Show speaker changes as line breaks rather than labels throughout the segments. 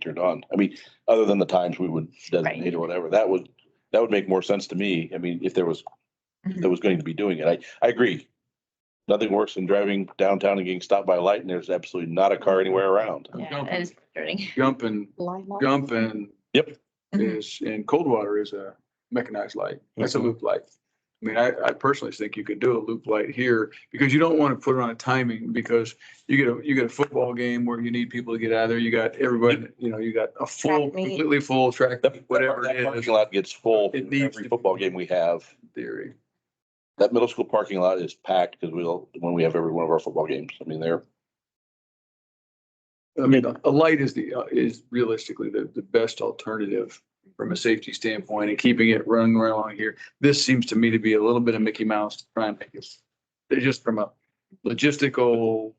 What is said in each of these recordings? turned on. I mean, other than the times we would designate or whatever, that would, that would make more sense to me. I mean, if there was, if there was going to be doing it, I, I agree. Nothing worse than driving downtown and getting stopped by a light and there's absolutely not a car anywhere around.
Yeah, that is frustrating.
Jumping, jumping.
Yep.
Mhm.
Is, and Coldwater is a mechanized light. That's a
Mhm.
loop light. I mean, I, I personally think you could do a loop light here because you don't want to put it on a timing because you get a, you get a football game where you need people to get out of there. You got everybody, you know, you got a full,
Track meet.
completely full track,
That- that-
whatever
that
it is,
Parking lot gets full
It needs to
every
be.
football game we have.
theory.
That middle school parking lot is packed because we'll, when we have every one of our football games, I mean, they're,
I mean, a- a light is the, uh, is realistically the, the best alternative from a safety standpoint and keeping it running right along here. This seems to me to be a little bit of Mickey Mouse to try and make it, they're just from a logistical,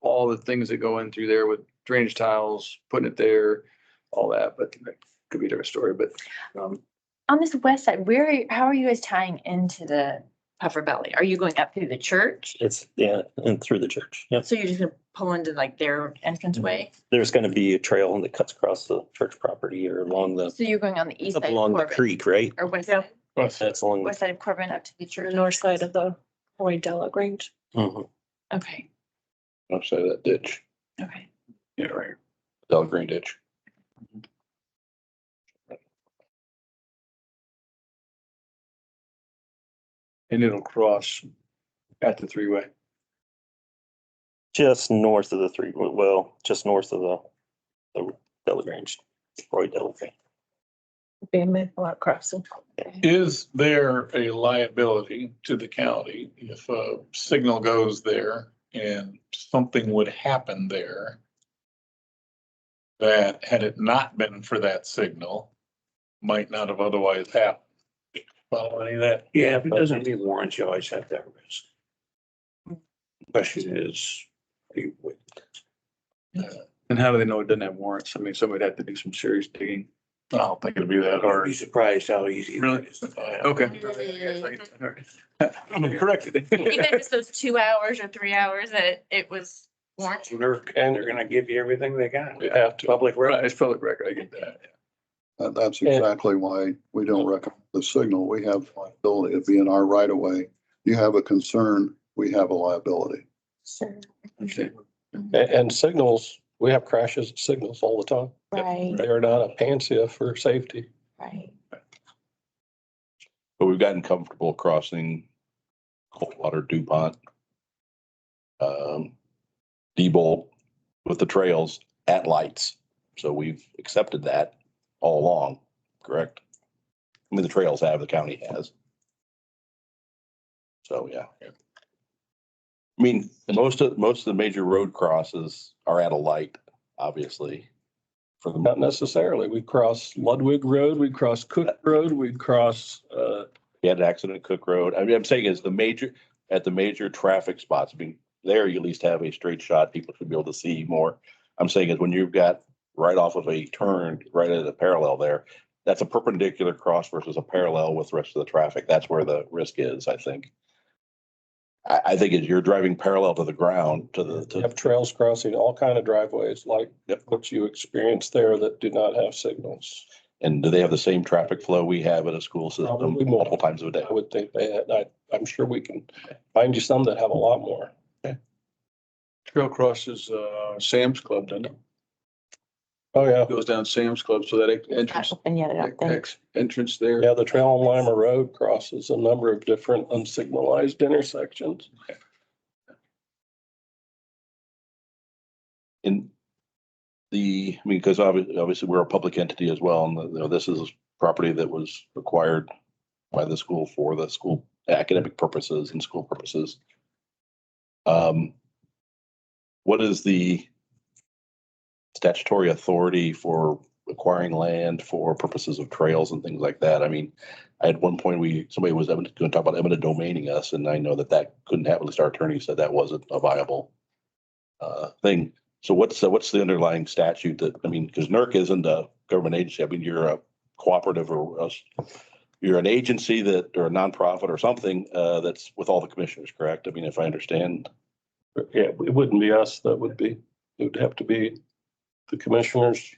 all the things that go in through there with drainage tiles, putting it there, all that, but that could be a different story, but, um,
On this west side, where, are you- how are you guys tying into the Puffer Belly? Are you going up through the church?
It's, yeah, and through the church. Yep.
So you're just gonna pull into like their
Mm-hmm.
entrance way?
There's going to be a trail that cuts across the church property or along the,
So you're going on the east
up
side of
along the
Corbin?
creek, right?
Or west,
Yeah.
side-
That's along. the
west side of Corbin up to the church?
the north side of the Roy Della Grange.
Mhm.
Okay,
outside of that ditch,
okay.
yeah, right.
Del Green ditch.
And it'll cross at the three-way.
Just north of the three, well, just north of the, the Delagrange, Roy Delagrange.
Abandoned lot crossing.
Is there a liability to the county if a signal goes there and something would happen there? That had it not been for that signal, might not have otherwise happened. Follow any of that?
Yeah, if it doesn't meet warrants, you always have that risk. Question is, you would-
And how do they know it doesn't have warrants? I mean, somebody'd have to do some serious digging.
I don't think it'd be that
you'd
hard.
be surprised how easy.
Really? Okay. I'm corrected.
Even if it's those two hours or three hours that it was warranted?
And they're, and they're gonna give you everything they got.
You'd have to.
Public
Right,
record.
it's public record, I get that.
That, that's
Yeah.
exactly why we don't recommend the signal. We have liability. It'd be in our right of way. You have a concern, we have a liability.
Sure,
Okay.
And, and signals, we have crashes of signals all the time.
right,
They are not a panacea for safety.
right.
But we've gotten comfortable crossing Coldwater, DuPont, um, Diebold with the trails at lights. So we've accepted that all along, correct? I mean, the trails have, the county has. So, yeah. I mean, most of, most of the major road crosses are at a light, obviously. For the,
Not necessarily. We cross Ludwig Road, we cross Cook Road, we cross, uh,
We had an accident at Cook Road. I mean, I'm saying is the major, at the major traffic spots, I mean, there you at least have a straight shot. People should be able to see more. I'm saying is when you've got right off of a turn, right at a parallel there, that's a perpendicular cross versus a parallel with the rest of the traffic. That's where the risk is, I think. I, I think is you're driving parallel to the ground, to the,
we
to,
have trails crossing all kind of driveways like
Yep.
what you experience there that do not have signals.
and do they have the same traffic flow we have at a school system
Probably not.
multiple times a day?
I would think they, had- I, I'm sure we can find you some that have a lot more.
Trail crosses, uh, Sam's Club, doesn't it?
Oh, yeah.
Goes down Sam's Club, so that e-,
Not
entrance,
open yet, I don't think.
ex- entrance there.
Yeah, the trail on Lima Road crosses a number of different unsignalized intersections.
in the, I mean, because obviously, we're a public entity as well, and you know, this is property that was acquired by the school for the school academic purposes and school purposes. Um, what is the statutory authority for acquiring land for purposes of trails and things like that? I mean, at one point, we, somebody was going to talk about eminent domaining us, and I know that that couldn't happen, at least our attorney said that wasn't a viable uh, thing. So what's, the- what's the underlying statute that, I mean, because NERC isn't a government agency. I mean, you're a cooperative or a s- you're an agency that, or a nonprofit or something, uh, that's with all the commissioners, correct? I mean, if I understand.
Yeah, it wouldn't be us, that would be, it would have to be the commissioners